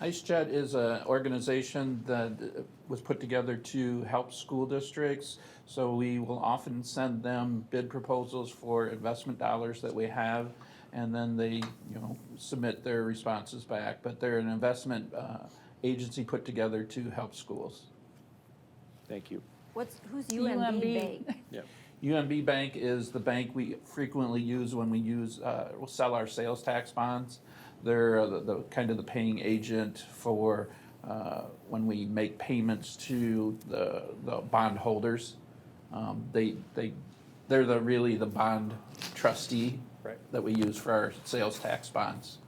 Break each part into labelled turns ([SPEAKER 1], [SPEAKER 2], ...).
[SPEAKER 1] IceJet is an organization that uh, was put together to help school districts. So we will often send them bid proposals for investment dollars that we have. And then they, you know, submit their responses back. But they're an investment uh, agency put together to help schools.
[SPEAKER 2] Thank you.
[SPEAKER 3] What's, who's UMB Bank?
[SPEAKER 2] Yeah.
[SPEAKER 1] UMB Bank is the bank we frequently use when we use, uh, we'll sell our sales tax bonds. They're uh, the, the, kind of the paying agent for, uh, when we make payments to the, the bondholders. Um, they, they, they're the, really the bond trustee.
[SPEAKER 2] Right.
[SPEAKER 1] That we use for our sales tax bonds,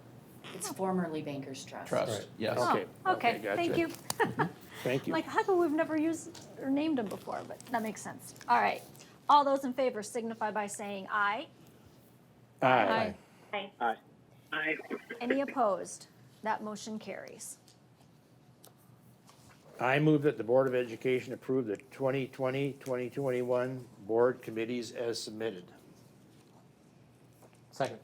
[SPEAKER 4] It's formerly Bankers Trust.
[SPEAKER 1] trust, yes.
[SPEAKER 2] Okay,
[SPEAKER 3] Oh,
[SPEAKER 2] okay,
[SPEAKER 3] Okay, thank
[SPEAKER 2] gotcha.
[SPEAKER 3] you.
[SPEAKER 2] Thank you.
[SPEAKER 3] Like, how come we've never used or named them before, but that makes sense. All right. All those in favor signify by saying aye.
[SPEAKER 2] Aye.
[SPEAKER 3] Aye. Aye. Any opposed? That motion carries.
[SPEAKER 2] I move that the Board of Education approve the 2020-2021 board committees as submitted.
[SPEAKER 5] Second.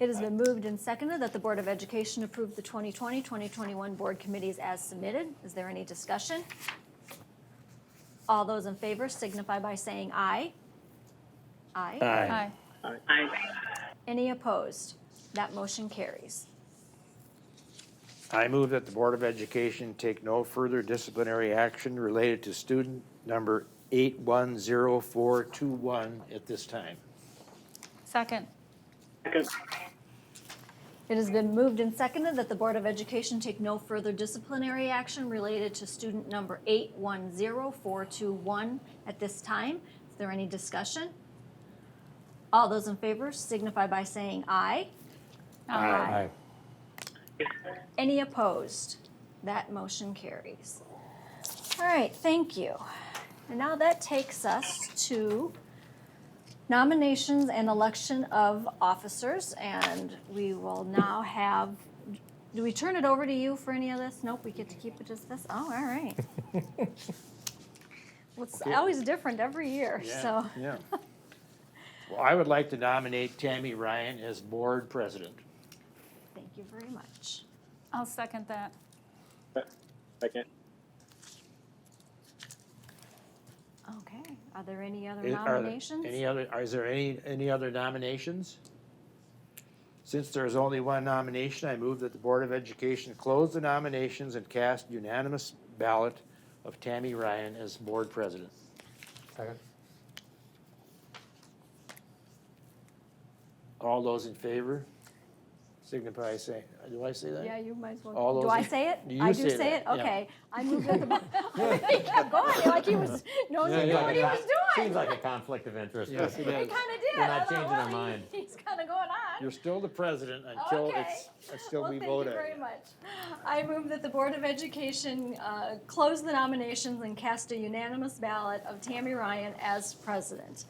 [SPEAKER 3] It has been moved and seconded that the Board of Education approve the 2020-2021 board committees as submitted. Is there any discussion? All those in favor signify by saying aye. Aye.
[SPEAKER 2] Aye.
[SPEAKER 3] Any opposed? That motion carries.
[SPEAKER 2] I move that the Board of Education take no further disciplinary action related to student number 810421 at this time.
[SPEAKER 6] Second.
[SPEAKER 3] It has been moved and seconded that the Board of Education take no further disciplinary action related to student number 810421 at this time. Is there any discussion? All those in favor signify by saying aye.
[SPEAKER 2] Aye.
[SPEAKER 3] Any opposed? That motion carries. All right, thank you. And now that takes us to nominations and election of officers, and we will now have, do we turn it over to you for any of this? Nope, we get to keep it as this? Oh, all right. Well, It's always different every year,
[SPEAKER 2] Yeah,
[SPEAKER 3] so.
[SPEAKER 2] Yeah. Well, I would like to nominate Tammy Ryan as board president.
[SPEAKER 3] Thank you very much.
[SPEAKER 6] I'll second that.
[SPEAKER 5] Second.
[SPEAKER 3] Okay, are there any other
[SPEAKER 2] Is- are there
[SPEAKER 3] nominations?
[SPEAKER 2] Any other, are- is there any, any other nominations? Since there is only one nomination, I move that the Board of Education close the nominations and cast unanimous ballot of Tammy Ryan as board president.
[SPEAKER 5] Second.
[SPEAKER 2] All those in favor signify saying, uh, do I say
[SPEAKER 3] Yeah,
[SPEAKER 2] that?
[SPEAKER 3] you might as well.
[SPEAKER 2] All
[SPEAKER 3] Do
[SPEAKER 2] those
[SPEAKER 3] I
[SPEAKER 2] in-
[SPEAKER 3] say it?
[SPEAKER 2] You
[SPEAKER 3] I do
[SPEAKER 2] say
[SPEAKER 3] say it,
[SPEAKER 2] that, yeah.
[SPEAKER 3] okay. I moved at the, bo- he kept going, like he was, no, he knew what he was
[SPEAKER 5] Seems
[SPEAKER 3] doing.
[SPEAKER 5] like a conflict of interest.
[SPEAKER 2] Yes, it
[SPEAKER 3] He
[SPEAKER 2] is.
[SPEAKER 3] kinda did.
[SPEAKER 5] We're
[SPEAKER 3] I
[SPEAKER 5] not
[SPEAKER 3] thought,
[SPEAKER 5] changing our
[SPEAKER 3] well, he-
[SPEAKER 5] mind.
[SPEAKER 3] He's kinda going on.
[SPEAKER 2] You're still the president until
[SPEAKER 3] Oh, Okay.
[SPEAKER 2] it's, until
[SPEAKER 3] Well,
[SPEAKER 2] we
[SPEAKER 3] thank
[SPEAKER 2] vote
[SPEAKER 3] you
[SPEAKER 2] on
[SPEAKER 3] very
[SPEAKER 2] it.
[SPEAKER 3] much. I move that the Board of Education, uh, close the nominations and cast a unanimous ballot of Tammy Ryan as president.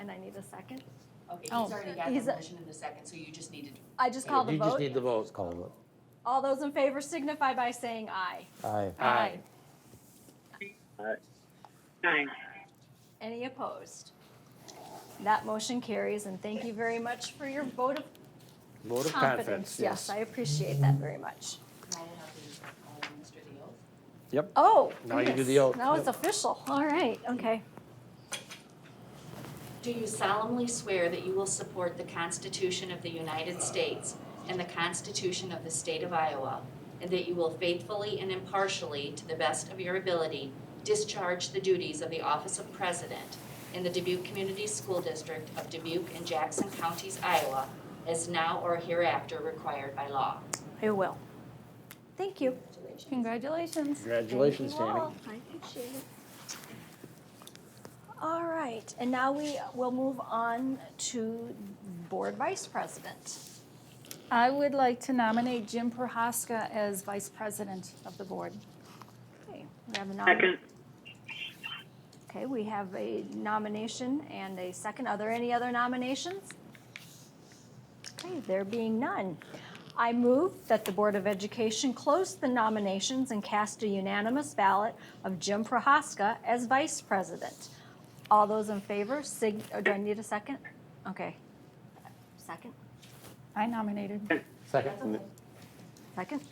[SPEAKER 3] And I need a second.
[SPEAKER 4] Okay, he's
[SPEAKER 6] Oh.
[SPEAKER 4] already got
[SPEAKER 3] He's
[SPEAKER 4] the
[SPEAKER 3] a-
[SPEAKER 4] motion in the second, so you just needed to
[SPEAKER 3] I just called the
[SPEAKER 2] You just
[SPEAKER 3] vote.
[SPEAKER 2] need the vote.
[SPEAKER 5] Call it.
[SPEAKER 3] All those in favor signify by saying aye.
[SPEAKER 5] Aye.
[SPEAKER 2] Aye.
[SPEAKER 3] Any opposed? That motion carries, and thank you very much for your vote of
[SPEAKER 2] Vote of
[SPEAKER 3] confidence.
[SPEAKER 2] confidence,
[SPEAKER 3] Yes, I appreciate that very much.
[SPEAKER 4] call it up and uh, administer the oath.
[SPEAKER 2] Yep.
[SPEAKER 3] Oh,
[SPEAKER 2] Now you do
[SPEAKER 3] goodness.
[SPEAKER 2] the oath.
[SPEAKER 3] Now it's official. All right, okay.
[SPEAKER 4] Do you solemnly swear that you will support the Constitution of the United States and the Constitution of the State of Iowa, and that you will faithfully and impartially, to the best of your ability, discharge the duties of the Office of President in the Dubuque Community School District of Dubuque and Jackson Counties, Iowa, as now or hereafter required by law?
[SPEAKER 3] I will. Thank you.
[SPEAKER 6] Congratulations.
[SPEAKER 2] Congratulations,
[SPEAKER 3] Thank you
[SPEAKER 2] Tammy.
[SPEAKER 3] all. I appreciate it. All right, and now we will move on to Board Vice President.
[SPEAKER 6] I would like to nominate Jim Prohaska as vice president of the board.
[SPEAKER 3] Okay, we have a nomination. Okay, we have a nomination and a second. Are there any other nominations? Okay, there being none. I move that the Board of Education close the nominations and cast a unanimous ballot of Jim Prohaska as vice president. All those in favor, sig, or do I need a second? Okay. Second,
[SPEAKER 6] I nominated.
[SPEAKER 5] Second.
[SPEAKER 3] second?